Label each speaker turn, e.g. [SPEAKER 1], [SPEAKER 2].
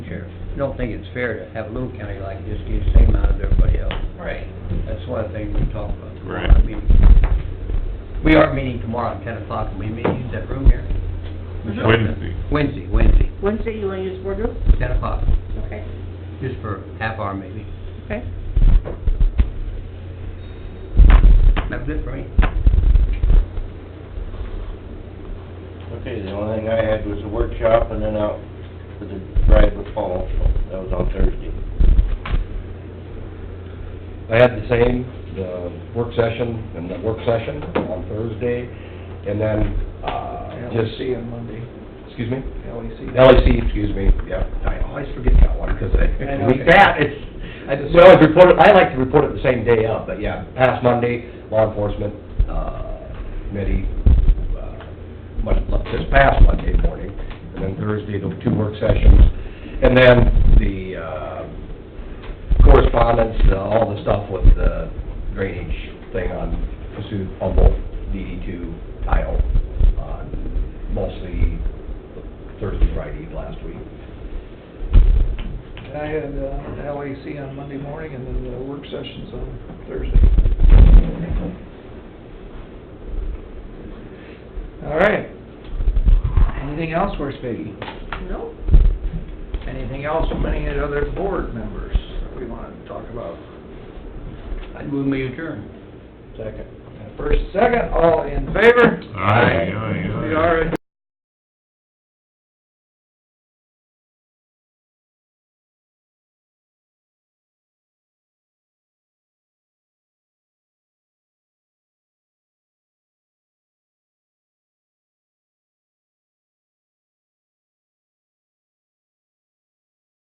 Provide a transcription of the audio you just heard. [SPEAKER 1] sheriff. I don't think it's fair to have a little county like this get the same amount as everybody else.
[SPEAKER 2] Right.
[SPEAKER 1] That's one of the things we talked about. tomorrow
[SPEAKER 3] Right.
[SPEAKER 1] meeting. We are meeting tomorrow at ten o'clock, and we may use that room here. Michelle?
[SPEAKER 3] Wednesday.
[SPEAKER 1] Wednesday, Wednesday,
[SPEAKER 4] Wednesday, you wanna use boardroom?
[SPEAKER 1] ten o'clock,
[SPEAKER 4] Okay,
[SPEAKER 1] just for half hour maybe.
[SPEAKER 4] okay.
[SPEAKER 1] That's it for me.
[SPEAKER 5] Okay, the only thing I had was a workshop and then out for the drive with Paul, so that was on Thursday.
[SPEAKER 6] I had the same, the work session and the work session on Thursday, and then, uh, just...
[SPEAKER 7] LEC on Monday,
[SPEAKER 6] Excuse me?
[SPEAKER 7] LEC.
[SPEAKER 6] LEC, excuse me, yeah, E I always forget that one, because I,
[SPEAKER 7] I know.
[SPEAKER 6] that, it's, I just, well, it's reported, I like to report it the same day of, but yeah, past Monday, law enforcement, uh, committee, uh, much, this past Monday morning, and then Thursday, the two work sessions, and then the, uh, correspondence, uh, all the stuff with the drainage thing on Cassuth, Humboldt, DD two, tile, uh, mostly Thursday, Friday last week.
[SPEAKER 7] And I had uh, LEC on Monday morning and then the work sessions on Thursday. All right. Anything else for us, Peggy?
[SPEAKER 4] No?
[SPEAKER 7] Anything else from any of the other board members that we want to talk about?
[SPEAKER 1] I'd move me adjourn.
[SPEAKER 7] Second. First, second, all in favor?
[SPEAKER 3] Aye, aye, aye.
[SPEAKER 7] We are adjourned.